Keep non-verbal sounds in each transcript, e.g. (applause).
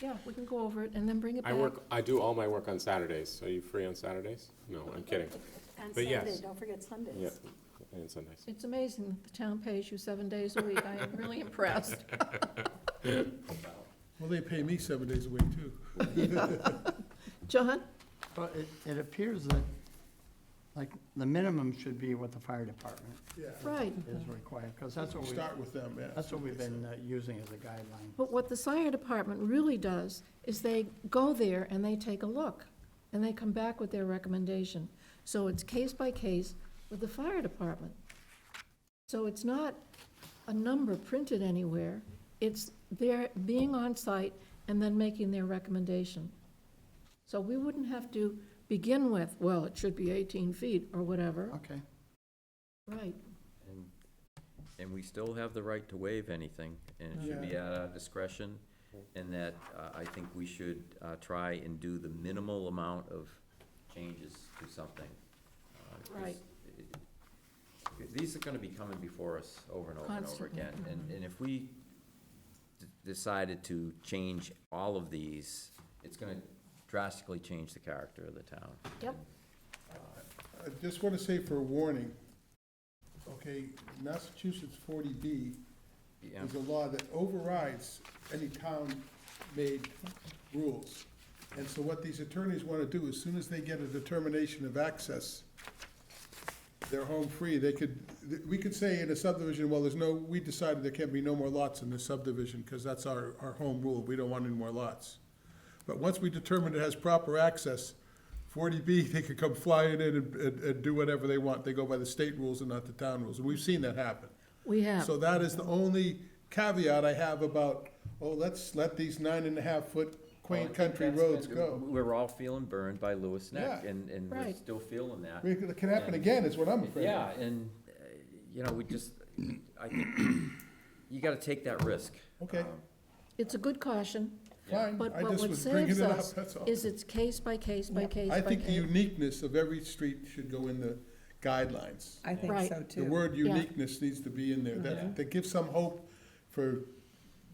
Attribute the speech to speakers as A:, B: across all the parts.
A: Yeah, we can go over it and then bring it back.
B: I work, I do all my work on Saturdays. Are you free on Saturdays? No, I'm kidding.
C: On
B: But yes.
C: Sunday, don't forget
B: Yeah,
C: Sundays.
B: and Sundays.
A: It's amazing that the town pays you seven days a week. I am
B: (laughs)
A: really impressed.
D: Well, they pay me seven days a week, too.
A: John?
E: Well, it, it appears that, like, the minimum should be what the fire department
D: Yeah.
A: Right.
E: is required, because that's what we,
D: Start with them, yeah.
E: that's what we've been uh, using as a guideline.
A: But what the fire department really does is they go there and they take a look, and they come back with their recommendation. So it's case by case with the fire department. So it's not a number printed anywhere, it's their being on site and then making their recommendation. So we wouldn't have to begin with, well, it should be 18 feet or whatever.
E: Okay,
A: Right,
F: And- And we still have the right to waive anything, and it should be at our discretion, and that uh, I think we should uh, try and do the minimal amount of changes to something. uh, 'cause
A: Right.
F: it- it- These are gonna be coming before us over and over and over
A: Constantly. Mm-hmm.
F: again, and, and if we d- decided to change all of these, it's gonna drastically change the character of the town.
A: yep,
D: I just want to say for a warning, okay, Massachusetts forty B
F: Yeah.
D: is a law that overrides any town-made rules. And so what these attorneys want to do, as soon as they get a determination of access, they're home free. They could, th- we could say in a subdivision, well, there's no, we decided there can be no more lots in this subdivision because that's our, our home rule. We don't want any more lots. But once we determine it has proper access, forty B, (laughs) they could come flying in and, and, and do whatever they want. They go by the state rules and not the town rules. And we've seen that happen.
A: we have.
D: So that is the only caveat I have about, oh, let's let these nine and a half foot quaint
F: Well, Oh, I think
D: country roads
F: that's-
D: go.
F: We're all feeling burned by Lewis Neck,
D: Yeah.
F: and, and we're
A: Right.
F: still feeling that.
D: I mean, It can happen again, is what I'm afraid of.
F: Yeah, and, uh, you know, we just, I think, you gotta take that risk.
D: Okay.
F: Um,
A: It's a good caution,
D: Fine,
A: but
D: I
A: but
D: just
A: what
D: was bringing
A: saves
D: it up,
A: us
D: that's all.
A: is it's case by case by case by
D: I
A: case.
D: think the uniqueness of every street should go in the guidelines.
G: I
A: Right.
G: think so
D: The
G: too.
D: word uniqueness needs to be in there,
F: Yeah.
A: Mm-hmm.
D: that, that gives some hope for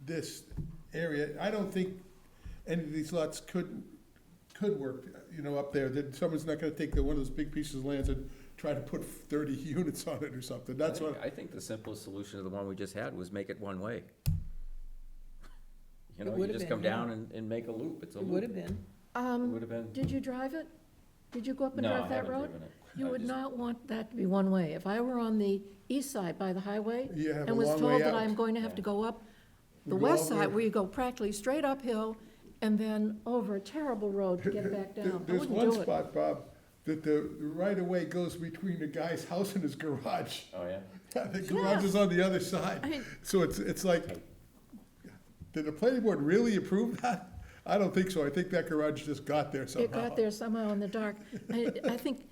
D: this area. I don't think any of these lots could, could work, you know, up there, that someone's not gonna take the, one of those big pieces of land and try to put thirty (laughs) units on it or something,
F: I
D: that's
F: think-
D: what,
F: I think the simplest solution to the one we just had was make it one-way. You
G: It
F: know, you
G: would've
F: just
G: been,
F: come
G: yeah.
F: down and, and make a loop, it's a
G: It
F: loop.
G: would have been.
F: It
A: Um,
F: would've been.
A: did you drive it? Did you go up and
F: No, I
A: drive that
F: haven't
A: road?
F: driven it.
A: You
F: I
A: would
F: just-
A: not want that to be one way. If I were on the east side by the highway
D: you have a
A: and was
D: long
A: told
D: way
A: that
D: out.
A: I'm going to have to go up the
D: You go
A: west
D: over-
A: side where you go practically straight uphill and then over a terrible road to get back
D: (laughs) There-
A: down, I
D: There's
A: wouldn't
D: one
A: do it.
D: spot, Bob, that the right-of-way goes between the guy's (laughs) house and his garage.
F: Oh, yeah?
D: Yeah, the garage is on the other
A: I
D: side.
A: mean-
D: So it's, it's like, did the planning board really approve that? I don't think so. I think that garage just got there somehow.
A: It got there somehow in the dark. I, I think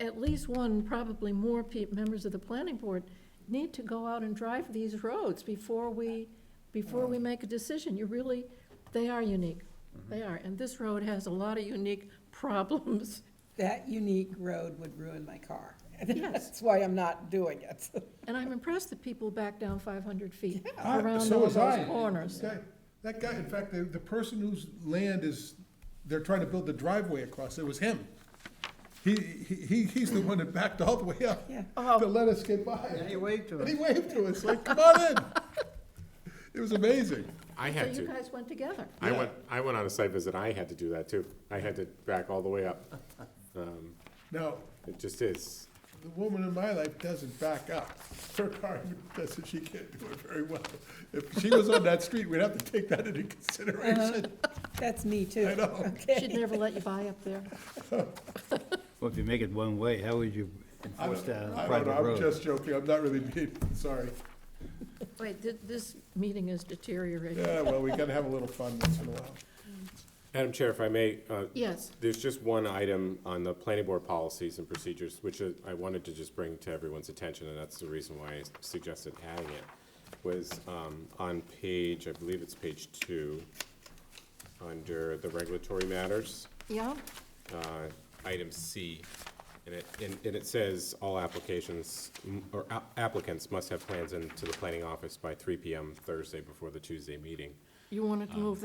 A: at least one, probably more pe- members of the planning board need to go out and drive these roads before we, before we make a decision. You really, they are unique. They are. And this road has a lot of unique problems.
G: That unique road would ruin my car. (laughs)
A: Yes.
G: That's why I'm not doing it. (laughs)
A: And I'm impressed that people back down five hundred feet
D: Ah,
A: around
D: so
A: all
D: was I.
A: those corners.
D: That guy- That guy, in fact, the, the person whose land is, they're trying to build the driveway across, it was him. He, he, he- he's the one that backed all the way up
G: Yeah.
A: Oh.
D: to let us get by.
E: And he waved to
D: And he
E: us.
D: waved to us, like, come on
E: (laughs)
D: in. It was amazing.
B: I
A: So
B: had
A: you
B: to.
A: guys went together.
B: I went, I went on a site visit. I had to do that too. I had to back all the way up.
A: (laughs)
B: Um,
D: Now,
B: It just is.
D: The woman in my life doesn't back up. Her car doesn't, she can't do it very well. If she was on that street, we'd have to take that into consideration.
G: That's me too. (laughs)
D: I know.
A: Should never let you buy up there.
H: Well, if you make it one way, how would you
D: I
H: enforce
D: don't
H: that on a
D: know,
H: private
D: I'm
H: road?
D: just joking, I'm not really being, sorry.
A: Wait, thi- this meeting is deteriorating.
D: Yeah, well, we gotta have a little fun once in a while.
B: Madam Chair, if I may, uh,
A: Yes,
B: There's just one item on the planning board policies and procedures, which uh, I wanted to just bring to everyone's attention, and that's the reason why I suggested adding it, was um, on page, I believe it's page two, under the regulatory matters
A: yeah,
B: uh, item C, and it, and and it says all applications, mm, or a- applicants must have plans into the planning office by three PM Thursday before the Tuesday meeting.
A: you wanted to move that